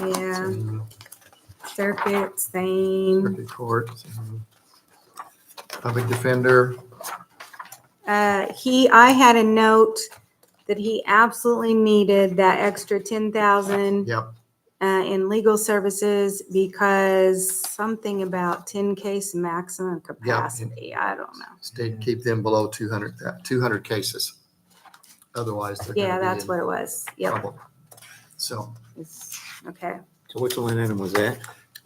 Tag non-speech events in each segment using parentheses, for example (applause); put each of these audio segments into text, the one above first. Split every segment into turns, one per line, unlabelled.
Yeah,
um,
circuit, same.
Circuit Court. um, Public Defender,
Uh, he, I had a note that he absolutely needed that extra ten thousand
yep,
uh, in legal services because something about ten case maximum capacity. I don't know.
state keep them below 200, tha- 200 cases. Otherwise, they're
Yeah,
going to
that's what it was. Yep.
So
It's- Okay.
So which line item was that?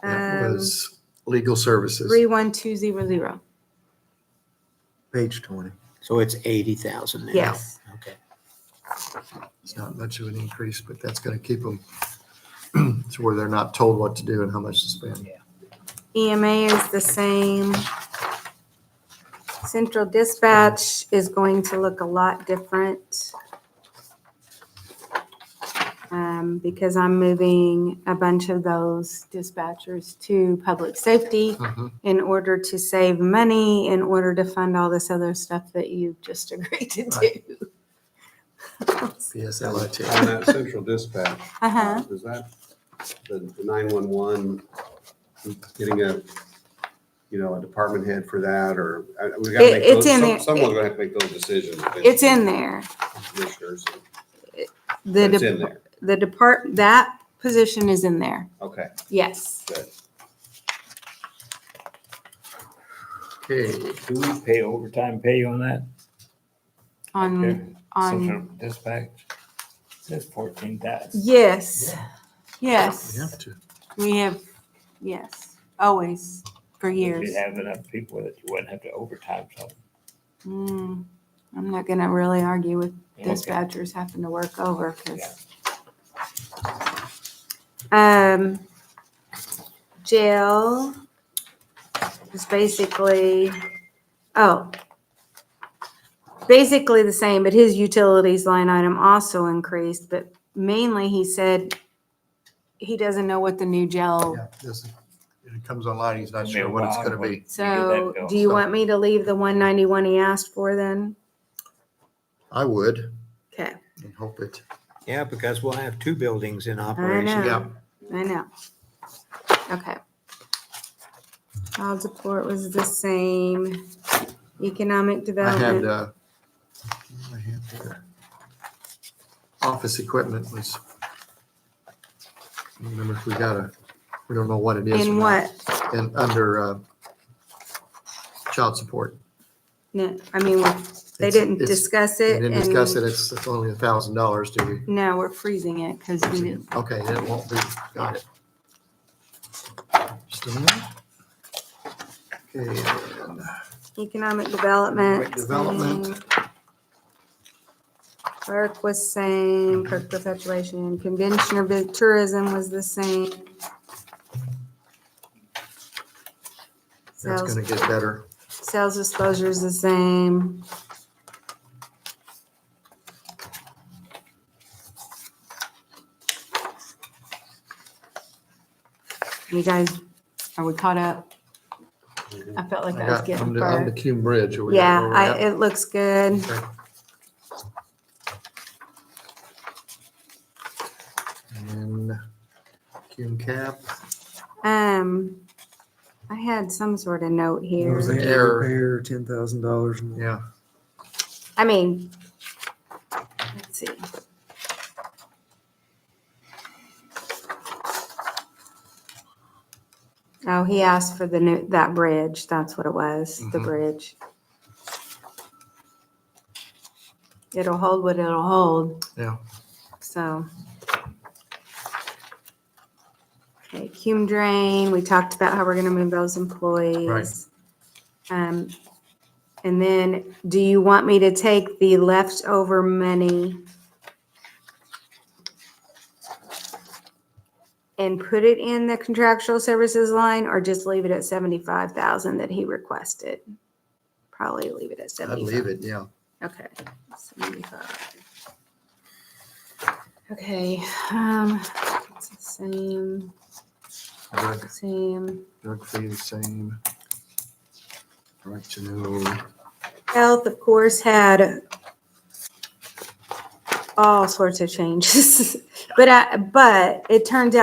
that
Um,
was legal services.
three one two zero zero.
Page twenty. So it's eighty thousand now?
Yes.
Okay.
It's not much of an increase, but that's going to keep them (clears throat) to where they're not told what to do and how much to spend.
EMA E is the same. Central dispatch is going to look a lot different. Um, because I'm moving a bunch of those dispatchers to public safety
Mhm.
in order to save money, in order to fund all this other stuff that you just (laughs) agreed to do.
PSLIT.
On that central dispatch,
Uh-huh.
is that the nine-one-one, getting a, you know, a department head for that, or? I- we gotta
It-
make
it's
those-
in
some-
there.
Someone's gonna have to make those decisions.
It's in there.
Commissioners,
The,
it's in
dep-
there,
the depart, that position is in there.
okay,
Yes.
good.
Okay,
Do we pay overtime pay on that?
On, on.
Central Dispatch? Says fourteen thousand.
Yes,
we have
yes,
to.
we have, yes, always, for years.
You'd have enough people that you wouldn't have to overtime something.
Mm, I'm not gonna really argue with
Okay.
dispatchers having to work over, because. Um, jail is basically, oh. Basically the same, but his utilities line item also increased, but mainly he said he doesn't know what the new jail
Yeah, this is- It comes online, he's not
It'll be
sure
a
what it's
while,
going to
but-
be.
So
go.
do you
So-
want me to leave the one ninety-one he asked for then?
I would,
Okay,
and hope it,
Yeah, because we'll have two buildings in
know.
operation.
yeah.
I know. Okay. Child support was the same. Economic
I had,
development,
uh, I had, uh, office equipment was, I don't remember if we got a, we don't know what it is.
in
or not.
what?
And under, uh, child support.
No, I mean, we- they
It's-
didn't
it's-
discuss
We
it
didn't discuss it,
and
it's, it's only a thousand dollars, do we?
no, we're freezing it because we didn't.
Okay, then it won't be, got it. Just a minute. Okay, and
Economic development.
Economic development.
same. Clerk was same, clerk perpetuation, convention of the- tourism was the same.
that's
Sales,
gonna get better.
sales disclosure is the same. You guys, are we caught up? I felt like
I
I was
got,
getting
on the, on the
far.
Cume Bridge. are we at
Yeah,
where we're
I,
at?
it looks good.
Okay. And Cume Cap,
Um, I had some sort of note
It
here.
was like
Error.
repair, ten thousand dollars.
yeah,
I mean, let's see. Oh, he asked for the new, that bridge. That's what it was, the
Mhm.
bridge. It'll hold what it'll hold,
yeah.
so. Okay, Cume Drain, we talked about how we're gonna move those employees. Um, and then, do you want me to take the leftover money and put it in the contractual services line, or just leave it at seventy-five thousand that he requested? Probably leave it at
I'd
seventy-five.
leave it, yeah.
Okay, seventy-five. Okay, um, it's the same,
Drug,
same.
drug fee the same. Right to know,
Health, of course, had (laughs) all sorts of changes, but I, but it turned out.